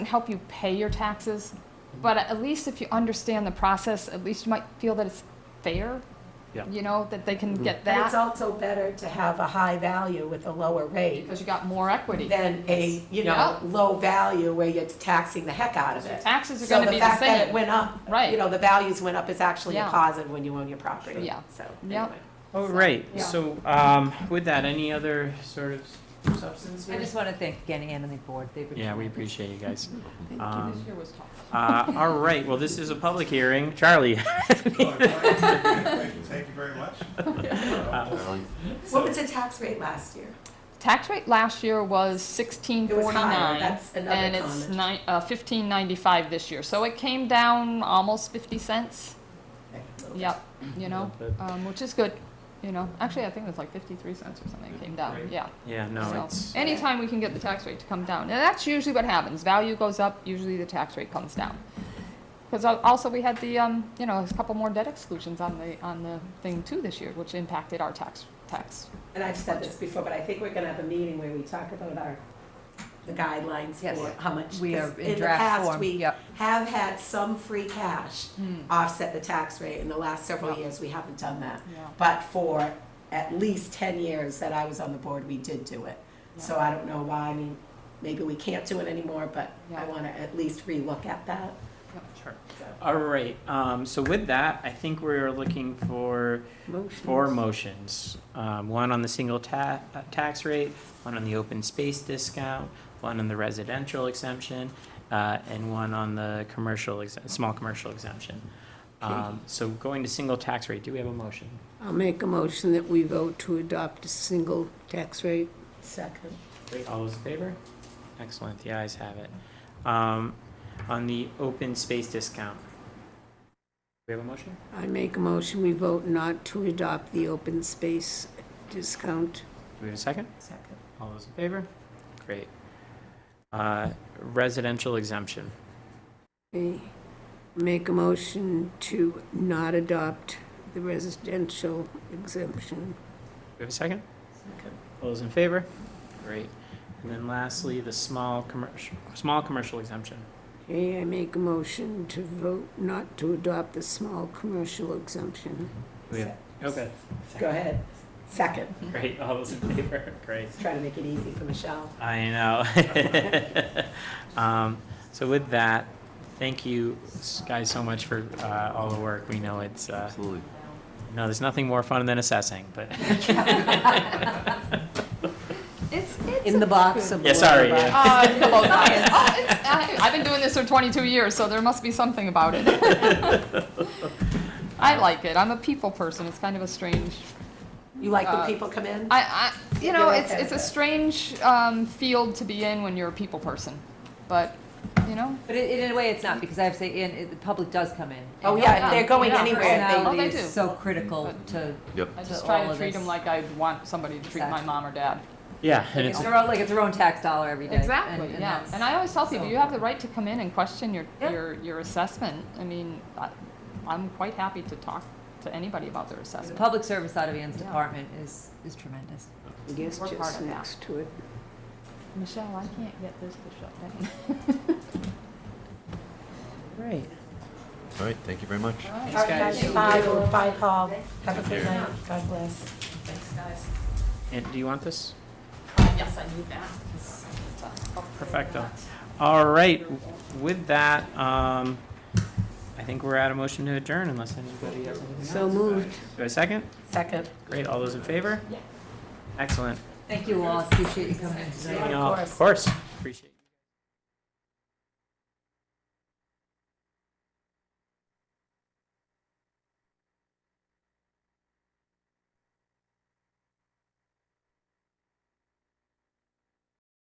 help you pay your taxes, but at least if you understand the process, at least you might feel that it's fair. Yeah. Mm-hmm. You know, that they can get But it's that also better to have a high value with a lower rate because you got more equity. than a, Yeah. you know, low value where you're taxing the heck out of it. Taxes are So gonna the be the fact that it same. went up, Right. you know, the values went up is actually a Yeah. positive when you own your property. Yeah. So, Yeah. anyway. Oh, So, right, yeah. so, um, with that, any other sort of substance? I just want to thank again Anne and the board. They've been Yeah, we appreciate you guys. Um, This year was tough. Uh, all right, well, this is a public hearing. Charlie, Thank you very much. What was the tax rate last year? Tax rate last year was sixteen It was higher, forty-nine, that's another and it's comment. nine, uh, fifteen ninety-five this year, so it came down almost fifty cents. Yep, you know, Little bit. um, which is good, you know, actually, I think it was like fifty-three cents or something came down, Right. yeah. yeah, no, So, it's, anytime we can get the tax rate to come down, and that's usually what happens, value goes up, usually the tax rate comes down. Because also, we had the, um, you know, a couple more debt exclusions on the, on the thing too this year, which impacted our tax, tax. And I've said this before, but I think we're gonna have a meeting where we talk about our, the guidelines Yes. for how much. We are 'cause in draft form. the Yep. past, we have had some free cash Hmm, offset the tax rate. In the last several Yep. years, we haven't done that. Yeah. But for at least ten years that I was on the board, we did do it. So I don't know why, I mean, maybe we can't do it anymore, but I Yeah. wanna at least relook at that. sure. All right, um, so with that, I think we're looking for four motions. Um, one on the single ta- uh, tax rate, one on the open space discount, one on the residential exemption, uh, and one on the commercial, ex- small commercial exemption. Um, so going to single tax rate, do we have a motion? I'll make a motion that we vote to adopt a single tax rate. Second. All those in favor? Excellent, the ayes have it. Um, on the open space discount. Do we have a motion? I make a motion we vote not to adopt the open space discount. Do we have a second? Second. All those in favor? Great. Uh, residential exemption. I Make a motion to not adopt the residential exemption. Do we have a second? All those in favor? Great. And then lastly, the small commercial, small commercial exemption. Okay, I make a motion to vote not to adopt the small commercial exemption. Do we have- Okay, Go ahead. Second. great, all those in favor? Great. Try to make it easy for Michelle. I know. um, so with that, thank you s- guys so much for uh, all the work. We know it's uh, Absolutely. no, there's nothing more fun than assessing, but It's, it's. In the box of. Yeah, sorry, Lorelei. yeah. Uh, come on, guys. Oh, it's, I, I've been doing this for 22 years, so there must be something about it. I like it. I'm a people person. It's kind of a strange. You like Uh, when people come in? I, I you know, You're it's okay it's a with it. strange um, field to be in when you're a people person, but you know. But it- in a way, it's not, because I have to say, Anne, it- the public does come in. Oh, And yeah, if they're going Yeah. anywhere, Oh, they Personality do. is so critical But- to, Yep. I To just try all to of treat this. them like I'd want somebody to treat my Exactly. mom or dad. yeah, and it's it's their own, like, it's their own tax dollar every day. Exactly, And- and yeah. that's- And I always tell people, so you have the right to come in and question your, Yeah. your, your assessment. I mean, I, I'm quite happy to talk to anybody about their The assessment. public service out of Anne's Yeah. department is, is tremendous. I guess We're part just of that. next to it. Michelle, I can't get this to shut down. great. All right, thank you very much. Thanks, guys. Bye, Lou. Bye, Paul. Have a Take good care. night. God bless. And do you want this? Yes, I knew that. Perfecto. All right, with that, um, I think we're out of motion to adjourn unless anybody has anything else. So moved. Do I second? Second. Great, all those in favor? Excellent. Thank you all, appreciate you coming in tonight. Anything else? Of course, appreciate it.